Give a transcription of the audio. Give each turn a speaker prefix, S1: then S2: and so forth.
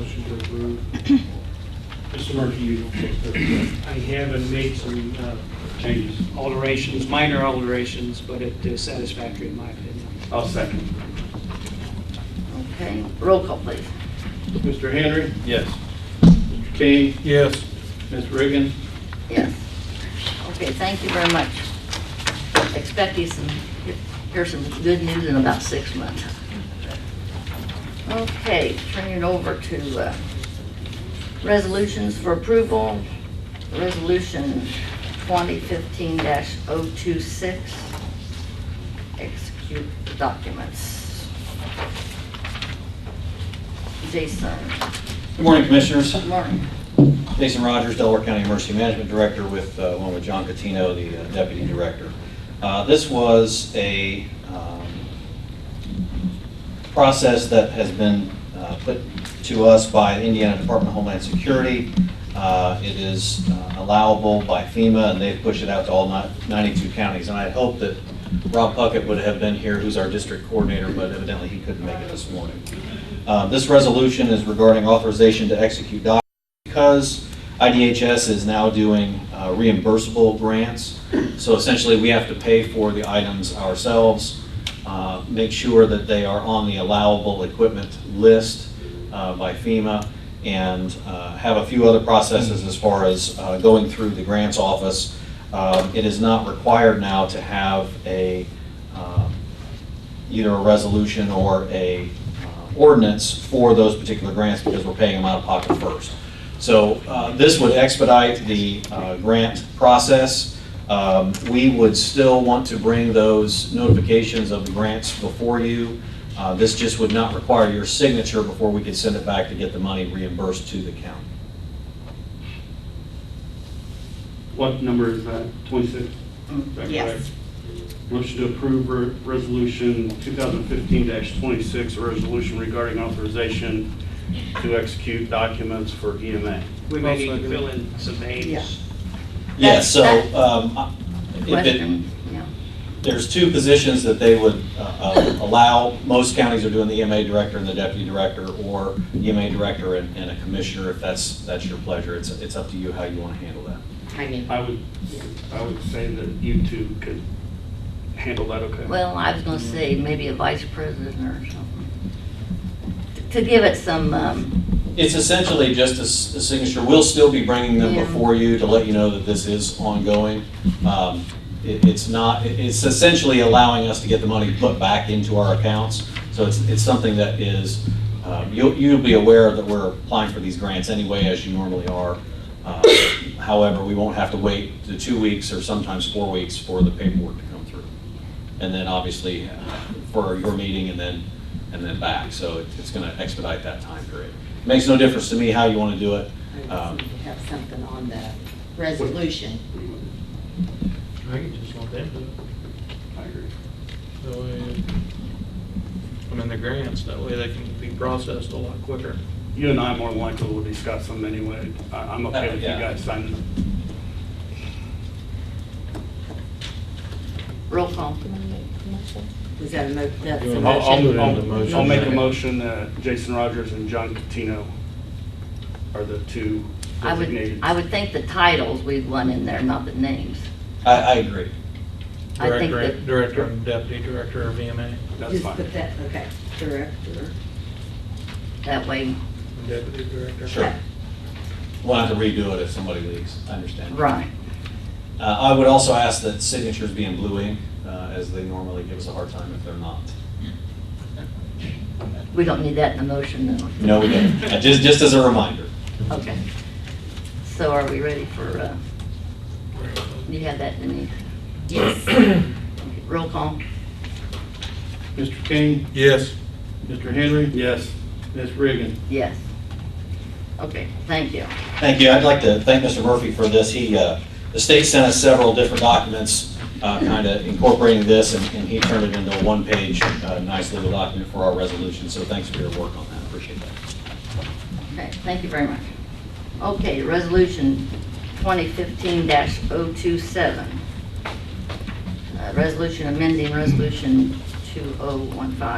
S1: approved.
S2: Mr. Murphy, you take the,
S3: I have and made some uh,
S2: changes.
S3: alterations, minor alterations, but it is satisfactory in my opinion.
S2: I'll second.
S1: Okay, roll call, please.
S2: Mr. Henry,
S4: Yes.
S2: Mr. King,
S4: Yes.
S2: Ms. Reagan.
S1: Yes. Okay, thank you very much. Expect you some, hear some good news in about six months. Okay, turning it over to uh, resolutions for approval. Resolution 2015-026, execute the documents. Jason,
S4: Good morning, Commissioners.
S1: good morning.
S4: Jason Rogers, Delaware County Emergency Management Director, with, uh, along with John Catino, the uh, Deputy Director. Uh, This was a um, process that has been uh, put to us by the Indiana Department of Homeland Security. Uh, It is uh, allowable by FEMA, and they've pushed it out to all ni- 92 counties. And I had hoped that Rob Puckett would have been here, who's our district coordinator, but evidently he couldn't make it this morning. Uh, This resolution is regarding authorization to execute documents because IDHS is now doing uh, reimbursable grants, so essentially we have to pay for the items ourselves, uh, make sure that they are on the allowable equipment list uh, by FEMA, and uh, have a few other processes as far as uh, going through the grants office. Um, It is not required now to have a, um, either a resolution or a uh, ordinance for those particular grants because we're paying them out of pocket first. So uh, this would expedite the uh, grant process. Um, We would still want to bring those notifications of the grants before you. Uh, This just would not require your signature before we could send it back to get the money reimbursed to the county.
S2: What number is that? 26?
S1: Mm,
S2: Is that
S1: Yes.
S2: correct? Motion to approve re- Resolution 2015-26, a resolution regarding authorization to execute documents for E EMA.
S3: We may need to fill in some names.
S4: Yeah,
S1: That's-
S4: so
S1: that's-
S4: um, I- if it,
S1: Question, yeah.
S4: there's two positions that they would uh, uh, allow. Most counties are doing the EMA director and the deputy director, or EMA director and and a commissioner, if that's, that's your pleasure. It's, it's up to you how you want to handle that.
S1: I mean,
S2: I would, I would say that you two could handle that, okay?
S1: Well, I was gonna say maybe a vice president or something. To give it some, um,
S4: It's essentially just a s- a signature. We'll still be bringing them
S1: Yeah.
S4: before you to let you know that this is ongoing. Um, it- It's not, it- it's essentially allowing us to get the money put back into our accounts. So it's, it's something that is, um, you'll, you'll be aware that we're applying for these grants anyway, as you normally are. Uh, However, we won't have to wait the two weeks or sometimes four weeks for the paperwork to come through. And then obviously for your meeting and then, and then back. So it- it's going to expedite that time period. Makes no difference to me how you want to do it. Um,
S5: have something on the resolution.
S6: I could just lump into it,
S2: I agree.
S6: that way, I mean, the grants, that way they can be processed a lot quicker.
S2: You and I more than likely will discuss them anyway. I- I'm okay with you
S4: Yeah.
S2: guys signing them.
S1: roll call.
S5: Was that a mo, that's a
S6: I'll- I'll
S5: motion?
S6: do it in the motion.
S2: I'll make a motion that Jason Rogers and John Catino are the two
S1: I would,
S2: designated.
S1: I would think the titles we'd want in there, not the names.
S4: I, I agree.
S1: I think
S6: Director,
S1: that-
S6: director and deputy director of E EMA,
S2: That's
S5: Just
S2: fine.
S5: put that, okay, director.
S1: That way,
S6: and deputy director.
S4: Sure. We'll have to redo it if somebody leaves. I understand.
S1: right,
S4: Uh, I would also ask that signatures be in blue ink, uh, as they normally give us a hard time if they're not.
S1: we don't need that in the motion, no.
S4: No, we don't. Uh, Just, just as a reminder.
S1: Okay. So are we ready for, uh, you have that, Denise?
S5: Yes.
S1: Okay, Roll call.
S2: Mr. King,
S6: Yes.
S2: Mr. Henry? Yes. Ms. Reagan?
S1: Yes. Okay, thank you.
S4: Thank you. I'd like to thank Mr. Murphy for this. He, uh, the state sent us several different documents, kind of incorporating this, and and he turned it into a one-page, uh, nice little document for our resolution. So thanks for your work on that. Appreciate that.
S1: Okay, thank you very much. Okay, resolution 2015-027. Uh, Resolution amending resolution 2015